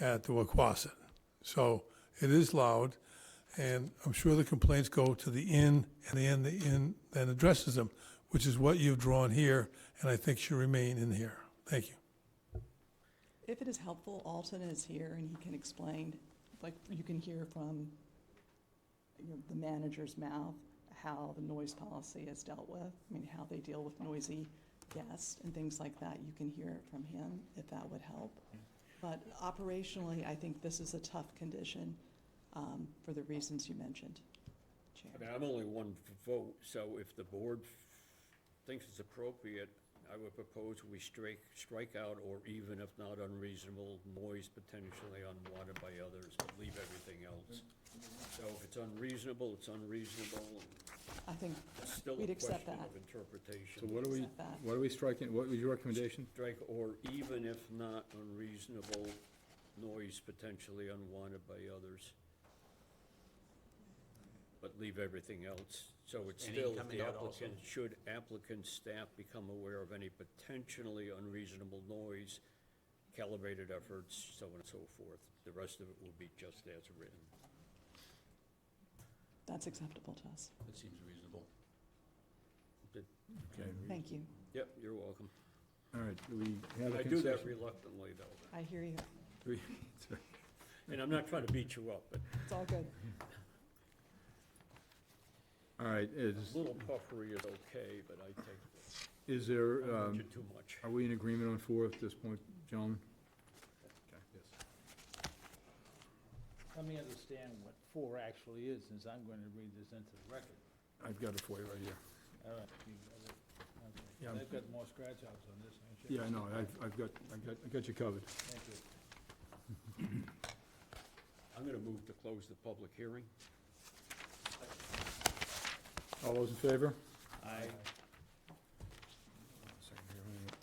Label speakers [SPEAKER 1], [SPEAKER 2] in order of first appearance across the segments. [SPEAKER 1] at the Wacquasit. So it is loud, and I'm sure the complaints go to the inn, and the inn, the inn then addresses them, which is what you've drawn here, and I think should remain in here. Thank you.
[SPEAKER 2] If it is helpful, Alton is here and he can explain, like, you can hear from you know, the manager's mouth how the noise policy is dealt with, I mean, how they deal with noisy guests and things like that. You can hear it from him, if that would help. But operationally, I think this is a tough condition um, for the reasons you mentioned, Chair.
[SPEAKER 3] I mean, I'm only one v- vote, so if the board thinks it's appropriate, I would propose we strike, strike out, or even if not unreasonable, noise potentially unwanted by others, but leave everything else. So if it's unreasonable, it's unreasonable,
[SPEAKER 2] I think
[SPEAKER 3] it's still a
[SPEAKER 2] We'd accept
[SPEAKER 3] question
[SPEAKER 2] that.
[SPEAKER 3] of interpretation.
[SPEAKER 4] So what are we,
[SPEAKER 2] Accept that.
[SPEAKER 4] what are we striking, what was your recommendation?
[SPEAKER 3] Strike, or even if not unreasonable, noise potentially unwanted by others. But leave everything else, so it's
[SPEAKER 5] And
[SPEAKER 3] still,
[SPEAKER 5] incoming
[SPEAKER 3] the
[SPEAKER 5] out also.
[SPEAKER 3] applicant, should applicant staff become aware of any potentially unreasonable noise, calibrated efforts, so on and so forth. The rest of it will be just as written.
[SPEAKER 2] that's acceptable to us.
[SPEAKER 5] That seems reasonable.
[SPEAKER 4] Okay,
[SPEAKER 2] Thank you.
[SPEAKER 3] Yep, you're welcome.
[SPEAKER 4] all right, do we have a
[SPEAKER 3] I do that
[SPEAKER 4] concession?
[SPEAKER 3] reluctantly, though,
[SPEAKER 2] I hear you.
[SPEAKER 4] Do we-
[SPEAKER 3] and I'm not trying to beat you up, but
[SPEAKER 2] It's all good.
[SPEAKER 4] All right, is,
[SPEAKER 3] a little puffery is okay, but I take,
[SPEAKER 4] is there,
[SPEAKER 3] I want
[SPEAKER 4] um,
[SPEAKER 3] you too much.
[SPEAKER 4] are we in agreement on four at this point, gentlemen?
[SPEAKER 6] Let me understand what four actually is, since I'm going to read this into the record.
[SPEAKER 4] I've got it for you right here.
[SPEAKER 6] All right. you got it. Okay.
[SPEAKER 4] Yeah.
[SPEAKER 6] They've got more scratch outs on this, ain't you?
[SPEAKER 4] Yeah, I know, I've, I've got, I've got, I got you covered.
[SPEAKER 6] Thank you.
[SPEAKER 3] I'm gonna move to close the public hearing.
[SPEAKER 4] All those in favor?
[SPEAKER 3] I
[SPEAKER 4] Second here, wait a minute.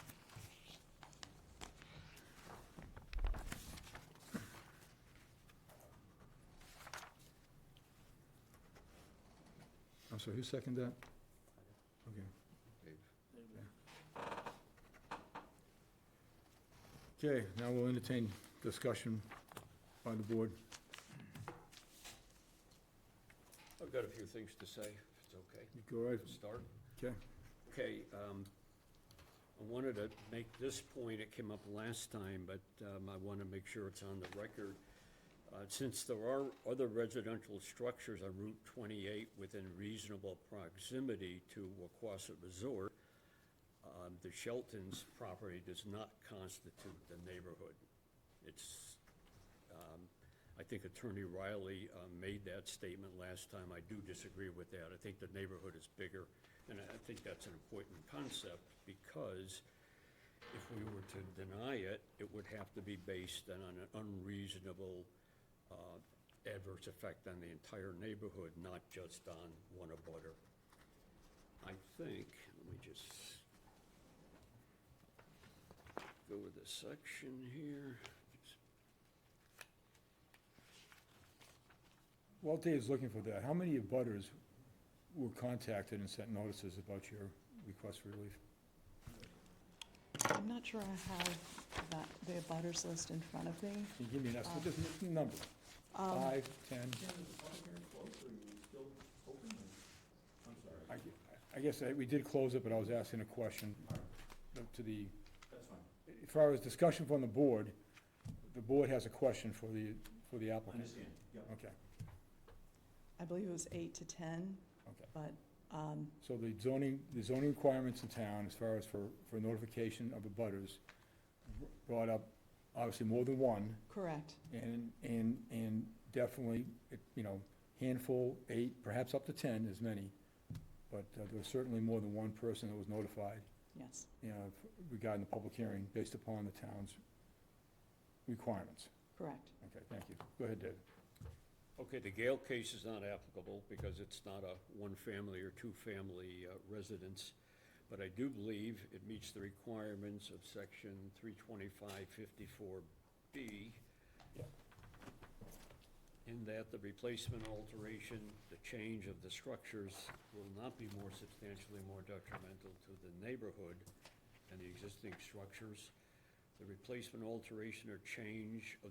[SPEAKER 4] I'm sorry, who seconded that? Okay. Okay, now we'll entertain discussion by the board.
[SPEAKER 3] I've got a few things to say, if it's okay.
[SPEAKER 4] You Go right,
[SPEAKER 3] To start,
[SPEAKER 4] okay.
[SPEAKER 3] okay, um, I wanted to make this point, it came up last time, but, um, I wanna make sure it's on the record. Uh, since there are other residential structures on Route twenty-eight within reasonable proximity to Wacquasit Resort, um, the Shelton's property does not constitute the neighborhood. It's I think Attorney Riley uh, made that statement last time. I do disagree with that. I think the neighborhood is bigger, and I think that's an important concept because if we were to deny it, it would have to be based on an unreasonable uh, adverse effect on the entire neighborhood, not just on one abutter. I think, let me just go to this section here.
[SPEAKER 4] While Dave's looking for that, how many abutters were contacted and sent notices about your request for relief?
[SPEAKER 2] I'm not sure I have that, the abutters list in front of me. Um,
[SPEAKER 4] Can you give me an estimate, just a number? Five, ten? I gu- I guess I- we did close it, but I was asking a question to the. That's fine. As far as discussion from the board, the board has a question for the, for the applicant. Understand, Okay,
[SPEAKER 2] I believe it was eight to 10,
[SPEAKER 4] okay.
[SPEAKER 2] but um,
[SPEAKER 4] So the zoning, the zoning requirements in town as far as for, for notification of abutters brought up obviously more than one.
[SPEAKER 2] correct.
[SPEAKER 4] And, and, and definitely, it- you know, handful, eight, perhaps up to 10, as many, but uh, there was certainly more than one person that was notified,
[SPEAKER 2] Yes,
[SPEAKER 4] you know, regarding the public hearing based upon the town's requirements.
[SPEAKER 2] correct.
[SPEAKER 4] Okay, thank you. Go ahead, David.
[SPEAKER 3] Okay, the Gale case is not applicable because it's not a one-family or two-family uh, residence, but I do believe it meets the requirements of section 32554B in that the replacement, alteration, the change of the structures will not be more substantially more detrimental to the neighborhood than the existing structures. The replacement, alteration, or change of